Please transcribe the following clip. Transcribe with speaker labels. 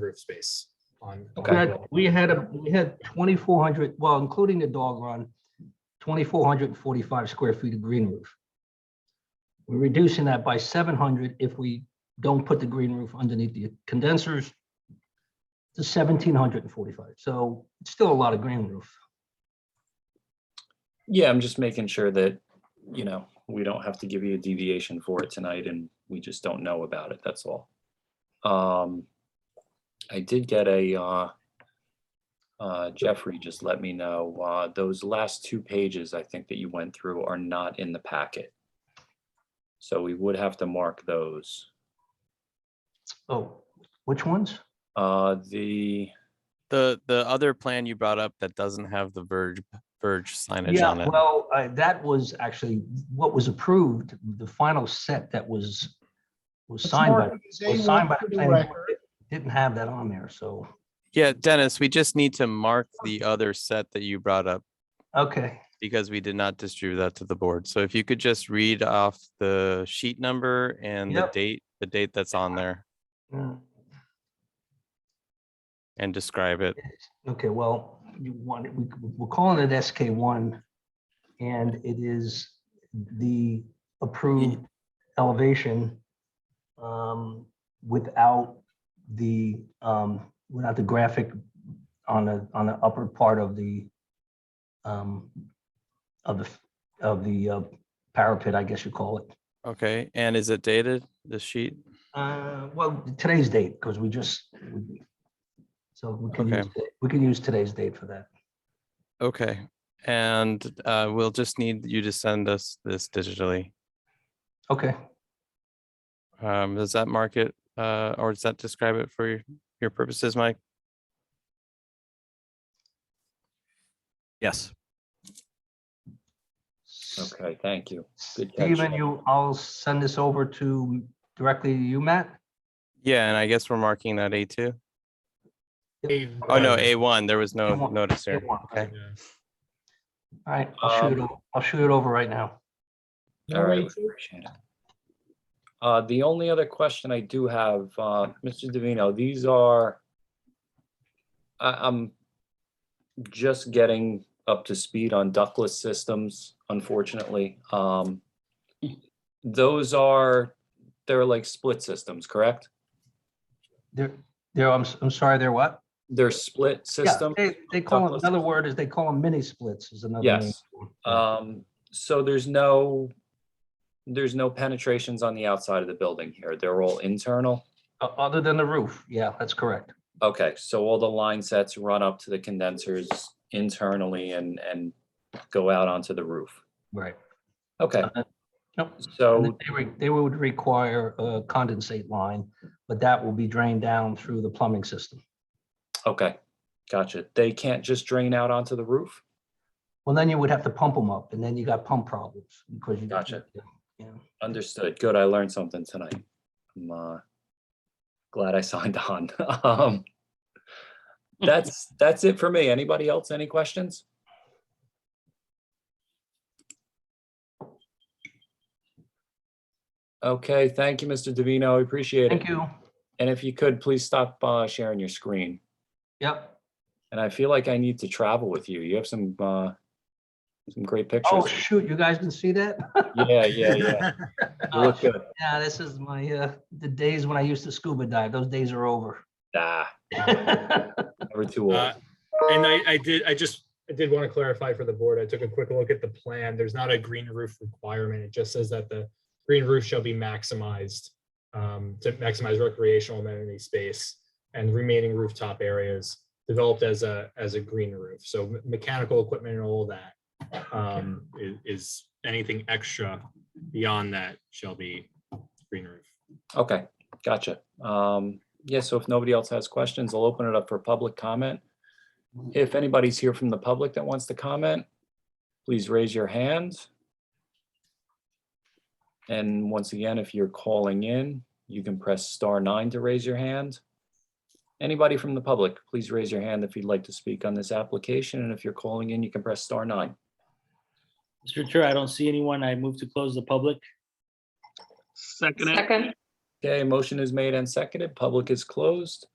Speaker 1: roof space on. on
Speaker 2: We
Speaker 1: the
Speaker 2: had-
Speaker 1: building.
Speaker 2: we had, a- we had twenty-four hundred, well, including the dog run, twenty-four hundred and forty-five square feet of green roof. We're reducing that by seven hundred if we don't put the green roof underneath the condensers to seventeen hundred and forty-five. So it's still a lot of green roof.
Speaker 3: Yeah, I'm just making sure that, you know, we don't have to give you a deviation for it tonight and we just don't know about it, that's all. Um, I did get a, uh, uh, Jeffrey just let me know, uh, those last two pages I think that you went through are not in the packet. So we would have to mark those.
Speaker 2: Oh, which ones?
Speaker 3: Uh, the,
Speaker 4: The the other plan you brought up that doesn't have the verge verge signage
Speaker 2: Yeah,
Speaker 4: on it.
Speaker 2: well, I- that was actually what was approved, the final set that was, was signed by, was signed by. the planning board. Didn't have that on there, so,
Speaker 4: yeah, Dennis, we just need to mark the other set that you brought up
Speaker 2: okay.
Speaker 4: because we did not distribute that to the board. So if you could just read off the sheet number and
Speaker 2: Yep.
Speaker 4: the date, the date that's on there
Speaker 2: yeah.
Speaker 4: and describe it.
Speaker 2: Okay, well, you want, we, we're calling it SK one. And it is the approved elevation. Um, without the, um, without the graphic on the, on the upper part of the. Um, of the, of the uh, parapet, I guess you call it.
Speaker 4: Okay. And is it dated, the sheet?
Speaker 2: Uh, well, today's date, because we just. we- So we can
Speaker 4: Okay.
Speaker 2: use, we can use today's date for that.
Speaker 4: Okay. And uh, we'll just need you to send us this digitally.
Speaker 2: Okay.
Speaker 4: Um, does that mark it, uh, or does that describe it for your- your purposes, Mike?
Speaker 5: Yes.
Speaker 3: okay, thank you. Good catch,
Speaker 2: Steven,
Speaker 3: Jeff.
Speaker 2: you, I'll send this over to directly to you, Matt.
Speaker 4: Yeah, and I guess we're marking that A two.
Speaker 1: Hey,
Speaker 4: Oh, no,
Speaker 1: uh,
Speaker 4: A one, there was no
Speaker 2: A1,
Speaker 4: notice here.
Speaker 2: A1,
Speaker 4: Okay.
Speaker 1: yeah.
Speaker 2: All right, I'll shoot it,
Speaker 3: Um,
Speaker 2: o- I'll shoot it over right now.
Speaker 3: All right, appreciate it. Uh, the only other question I do have, uh, Mr. Davino, these are, I, I'm just getting up to speed on ductless systems, unfortunately. Um, those are, they're like split systems, correct?
Speaker 2: There, there, I'm, s- I'm sorry, there what?
Speaker 3: They're split
Speaker 2: Yeah,
Speaker 3: systems?
Speaker 2: They, they call them,
Speaker 3: Douglas.
Speaker 2: another word is they call them mini splits is another. name
Speaker 3: Yes.
Speaker 2: for 'em.
Speaker 3: Um, so there's no, there's no penetrations on the outside of the building here. They're all internal?
Speaker 2: O- Other than the roof, yeah, that's correct.
Speaker 3: Okay, so all the line sets run up to the condensers internally and, and go out onto the roof.
Speaker 2: Right.
Speaker 3: Okay,
Speaker 2: Uh-huh. Yep. And then
Speaker 3: so,
Speaker 2: They re- they would require a condensate line, but that will be drained down through the plumbing system.
Speaker 3: okay, gotcha. They can't just drain out onto the roof?
Speaker 2: Well, then you would have to pump them up and then you got pump problems because you.
Speaker 3: Gotcha.
Speaker 2: Yeah.
Speaker 3: Understood. Good, I learned something tonight. I'm uh, glad I signed on. Um, That's, that's it for me. Anybody else? Any questions? Okay, thank you, Mr. Davino. I Appreciate it.
Speaker 2: Thank you.
Speaker 3: And if you could, please stop uh, sharing your screen.
Speaker 2: Yep.
Speaker 3: And I feel like I need to travel with you. You have some uh, some great
Speaker 2: Oh,
Speaker 3: pictures.
Speaker 2: shoot, you guys can see that?
Speaker 3: Yeah, yeah, yeah. You
Speaker 2: Oh,
Speaker 3: look
Speaker 2: shoot,
Speaker 3: good.
Speaker 2: Yeah, this is my, uh, the days when I used to scuba dive. Those days are over.
Speaker 3: Ah, never too
Speaker 1: Uh,
Speaker 3: old.
Speaker 1: And I, I did, I just, I did want to clarify for the board. I took a quick look at the plan. There's not a green roof requirement. It just says that the green roof shall be maximized um, to maximize recreational amenity space and remaining rooftop areas developed as a, as a green roof. So me- mechanical equipment and all that um, i- is anything extra beyond that shall be green roof.
Speaker 3: Okay, gotcha. Um, yeah, so if nobody else has questions, I'll open it up for public comment. If anybody's here from the public that wants to comment, please raise your hand. And once again, if you're calling in, you can press star nine to raise your hand. Anybody from the public, please raise your hand if you'd like to speak on this application. And if you're calling in, you can press star nine.
Speaker 6: Mr. Chair, I don't see anyone. I move to close the public.
Speaker 7: Second.
Speaker 3: Okay, motion is made and seconded. Public is closed.